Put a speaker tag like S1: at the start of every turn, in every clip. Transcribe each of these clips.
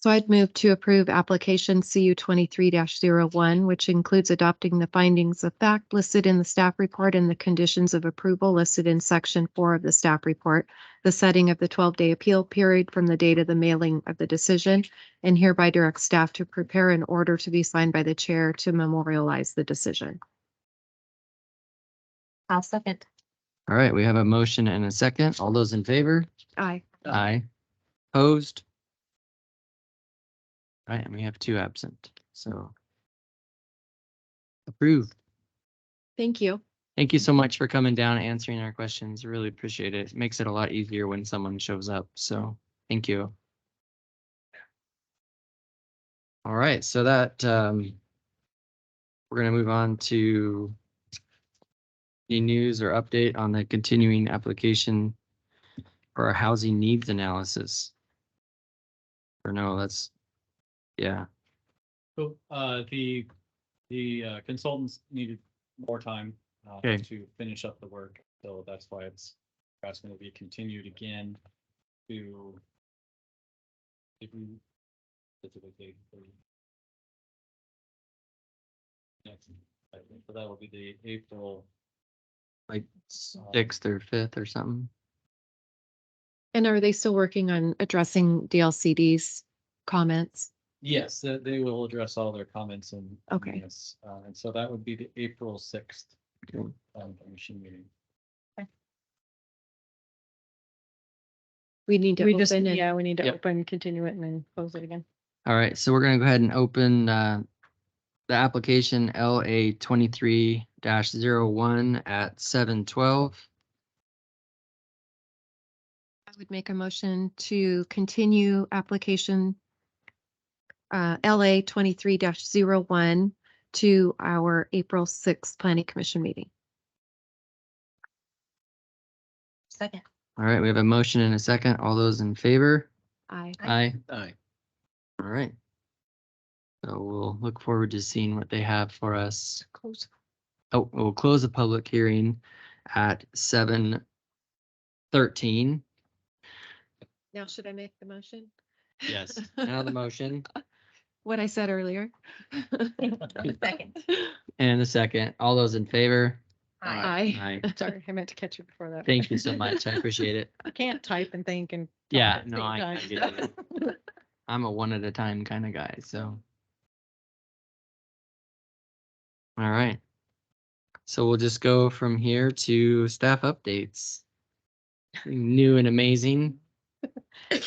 S1: So I'd move to approve application CU twenty-three one which includes adopting the findings of fact listed in the staff report and the conditions of approval listed in section four of the staff report, the setting of the twelve-day appeal period from the date of the mailing of the decision, and hereby direct staff to prepare an order to be signed by the chair to memorialize the decision.
S2: I'll second.
S3: All right, we have a motion and a second. All those in favor?
S1: Aye.
S3: Aye. Opposed? All right, and we have two absent, so. Approved.
S1: Thank you.
S3: Thank you so much for coming down, and answering our questions. Really appreciate it. Makes it a lot easier when someone shows up, so thank you. All right, so that, um, we're gonna move on to any news or update on the continuing application for our housing needs analysis. Or no, that's, yeah,
S4: So, uh, the, the uh, consultants needed more time, uh,
S3: Okay.
S4: to finish up the work, so that's why it's, that's gonna be continued again to. if we- if it's okay for you. Next, I think, So that will be the April,
S3: like sixth or fifth or something.
S1: And are they still working on addressing DLCD's comments?
S4: yes, they, they will address all their comments and.
S1: Okay.
S4: Yes, uh, and so that would be the April sixth,
S3: Okay.
S4: um, commission meeting.
S1: We need to
S2: We just,
S1: open and
S2: yeah, we need to
S3: Yep.
S2: open, continue it and then close it again.
S3: All right, so we're gonna go ahead and open uh, the application LA twenty-three one at seven twelve.
S1: I would make a motion to continue application uh, LA twenty-three one to our April sixth planning commission meeting.
S2: Second.
S3: All right, we have a motion and a second. All those in favor?
S1: I,
S3: Aye.
S4: Aye.
S3: All right. So we'll look forward to seeing what they have for us. Close. Oh, we'll close the public hearing at seven thirteen.
S1: now should I make the motion?
S4: Yes.
S3: Now the motion
S1: What I said earlier.
S2: Second.
S3: and the second. All those in favor?
S1: I,
S3: Aye.
S2: Sorry, I meant to catch you before that.
S3: Thank you so much. I appreciate it.
S2: I can't type and think and. talk uh,
S3: Yeah,
S2: at the
S3: no,
S2: same
S3: I, I
S2: time.
S3: get it. I'm a one at a time kind of guy, so. All right. So we'll just go from here to staff updates. Something New and amazing.
S2: Um,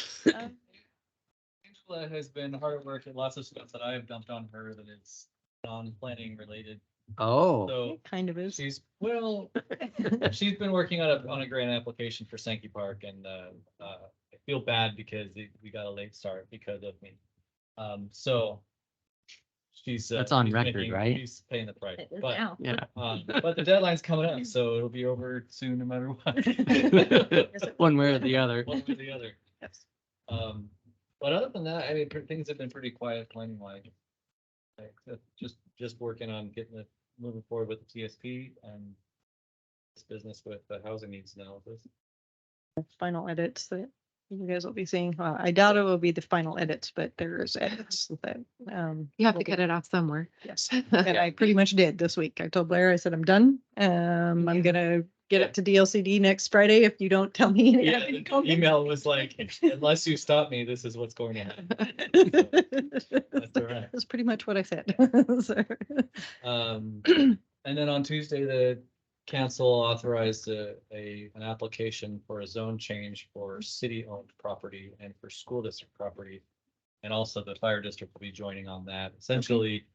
S4: Angela has been hard at work at lots of stuff that I have dumped on her that is non-planning related.
S3: Oh,
S4: So
S2: it Kind of is.
S4: she's, well, she's been working on a, on a grant application for Sankey Park and, uh, uh, I feel bad because we- we got a late start because of me. Um, so she's. uh,
S3: That's on
S4: she's
S3: record,
S4: making-
S3: right?
S4: She's paying the price,
S2: It is
S4: but,
S2: now.
S3: yeah.
S4: um, but the deadline's coming up, so it'll be over soon no matter what.
S3: One way or the other.
S4: One way or the other.
S2: Yes.
S4: Um, but other than that, I mean, pr- things have been pretty quiet planning wise. Like, uh, just, just working on getting it, moving forward with the TSP and this business with the housing needs analysis.
S2: Final edits that you guys will be seeing. Well, I doubt it will be the final edits, but there is edits that, um.
S1: you have
S2: will
S1: to
S2: be-
S1: cut it off somewhere.
S2: Yes, and I pretty much did this week. I told Blair, I said, I'm done. Um, I'm gonna get it to DLCD next Friday if you don't tell me. any
S4: Yeah,
S2: other
S4: the
S2: comments."
S4: email was like, unless you stop me, this is what's going to happen. all right.
S2: That's pretty much what I said. So,
S4: Um, and then on Tuesday, the council authorized a, a, an application for a zone change for city-owned property and for school district property. And also the fire district will be joining on that. Essentially,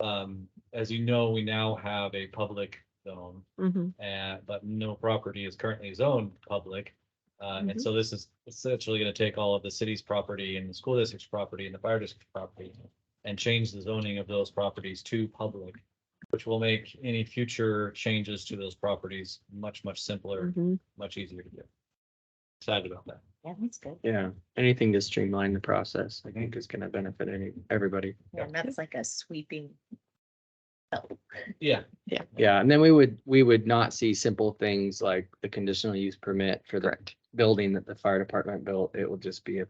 S4: um, as you know, we now have a public zone
S2: Mm-hmm.
S1: Mhm.
S4: uh, but no property is currently zoned public. Uh, and so this is essentially gonna take all of the city's property and the school district's property and the fire district's property and change the zoning of those properties to public, which will make any future changes to those properties much, much simpler,
S2: Mhm.
S4: much easier to do. Excited about that.
S2: Yeah, that's good.
S3: Yeah, anything to streamline the process, I think is gonna benefit any, everybody.
S4: Yeah,
S2: that's like a sweeping.
S4: Yeah,
S3: Yeah, and then we would, we would not see simple things like the conditional use permit for the building that the fire department built. It will just be a